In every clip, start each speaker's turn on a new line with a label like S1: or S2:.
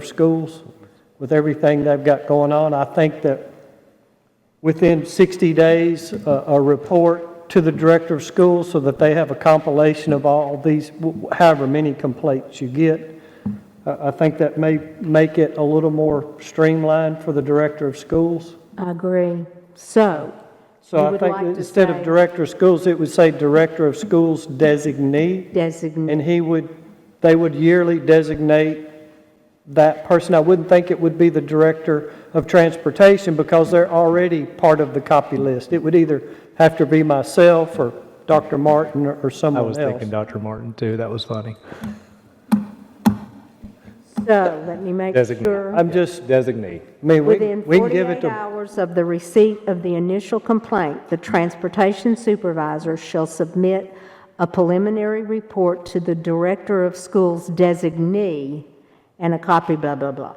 S1: for schools with everything they've got going on. I think that within 60 days, a a report to the director of schools so that they have a compilation of all these, wh- however many complaints you get. Uh, I I think that may make it a little more streamlined for the director of schools.
S2: I agree. So, You
S1: So I
S2: would
S1: think
S2: like
S1: that
S2: to
S1: instead of
S2: say-
S1: director of schools, it would say director of schools designee,
S2: designate,
S1: and he would, they would yearly designate that person. I wouldn't think it would be the director of transportation because they're already part of the copy list. It would either have to be myself or Dr. Martin or- or
S3: I
S1: someone
S3: was thinking
S1: else.
S3: Dr. Martin too. That was funny.
S2: so let me make
S3: Designate.
S2: sure.
S1: I'm just,
S3: Designate.
S1: I mean, we
S2: Within
S1: can, we can give it
S2: 48
S1: to,
S2: hours of the receipt of the initial complaint, the transportation supervisor shall submit a preliminary report to the director of schools designee and a copy, blah, blah, blah.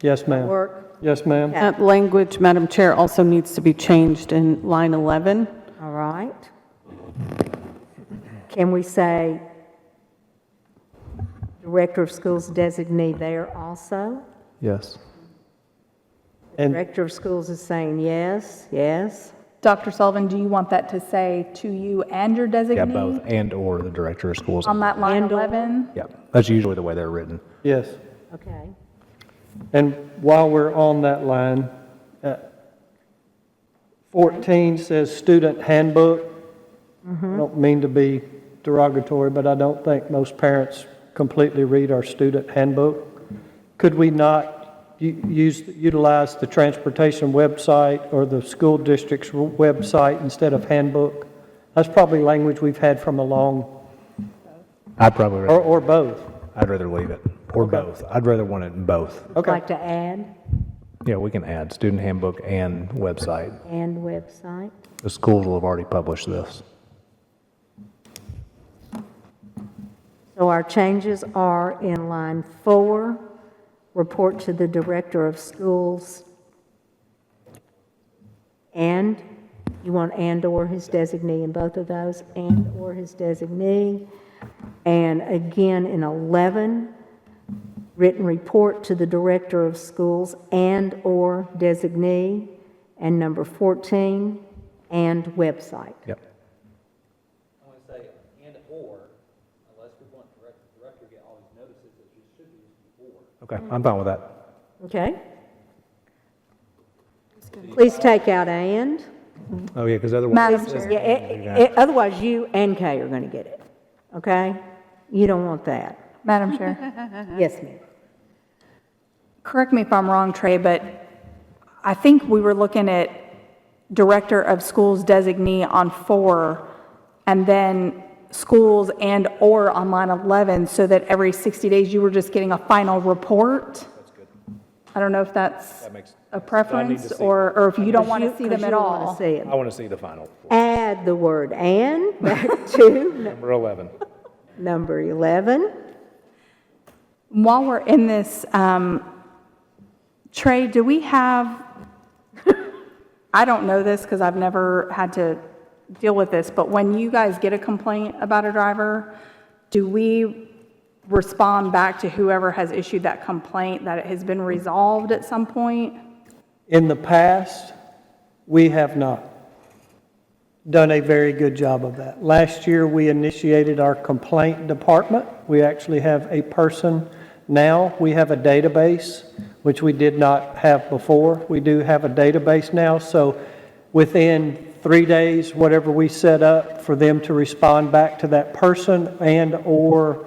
S1: yes, ma'am.
S2: Work,
S1: Yes, ma'am.
S2: Yeah.
S4: That language, Madam Chair, also needs to be changed in line 11.
S2: all right? Can we say director of schools designee there also?
S3: Yes.
S1: And
S2: Director of schools is saying yes, yes.
S5: Dr. Sullivan, do you want that to say to you and your designee?
S3: Yeah, both and/or the director of schools.
S5: On that line
S2: And or.
S5: 11?
S3: Yeah, that's usually the way they're written.
S1: yes.
S2: Okay.
S1: And while we're on that line, uh, 14 says student handbook. I don't mean to be derogatory, but I don't think most parents completely read our student handbook. Could we not u- use, utilize the transportation website or the school district's w- website instead of handbook? That's probably language we've had from a long,
S3: I'd probably,
S1: or,
S3: rather-
S1: or both.
S3: I'd rather leave it, or both. I'd rather want it in both.
S1: Okay,
S2: Like to add,
S3: Yeah, we can add student handbook and website.
S2: and website.
S3: The schools will have already published this.
S2: So our changes are in line four, report to the director of schools. And, you want and/or his designee in both of those, and/or his designee. And again, in 11, written report to the director of schools and/or designee. And number 14, and website.
S3: Yep. I want to say and/or, unless we want director, director get all these notices, it should be before. Okay, I'm fine with that.
S2: Okay? Please take out and.
S3: Oh, yeah, because otherwise.
S5: Madam Chair.
S2: Yeah, eh, eh, Otherwise, you and Kay are going to get it, okay? You don't want that.
S5: Madam Chair,
S2: Yes, ma'am.
S5: correct me if I'm wrong, Trey, but I think we were looking at director of schools designee on four, and then schools and/or on line 11, so that every 60 days you were just getting a final report? I don't know if that's a preference, or, or if you don't want to see them at all.
S2: Because you don't
S3: I
S2: want
S3: want to see the final,
S2: to see it. Add the word and back to
S3: number 11.
S2: number 11.
S5: While we're in this, um, Trey, do we have, I don't know this because I've never had to deal with this, but when you guys get a complaint about a driver, do we respond back to whoever has issued that complaint that it has been resolved at some point?
S1: In the past, we have not done a very good job of that. Last year, we initiated our complaint department. We actually have a person now. We have a database, which we did not have before. We do have a database now, so within three days, whatever we set up for them to respond back to that person and/or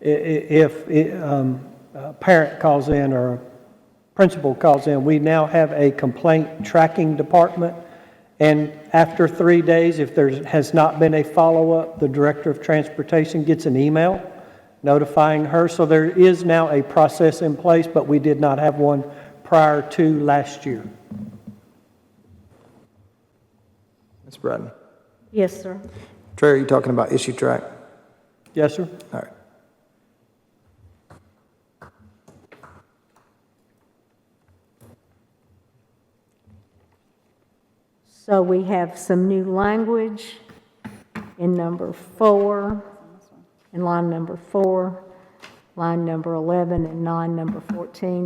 S1: i- i- if um, a parent calls in or a principal calls in, we now have a complaint tracking department. And after three days, if there has not been a follow-up, the director of transportation gets an email notifying her. So there is now a process in place, but we did not have one prior to last year.
S6: Ms. Braden.
S2: Yes, sir.
S6: Trey, are you talking about issue track?
S1: Yes, sir?
S6: All right.
S2: So we have some new language in number four, in line number four. line number 11 and non number 14.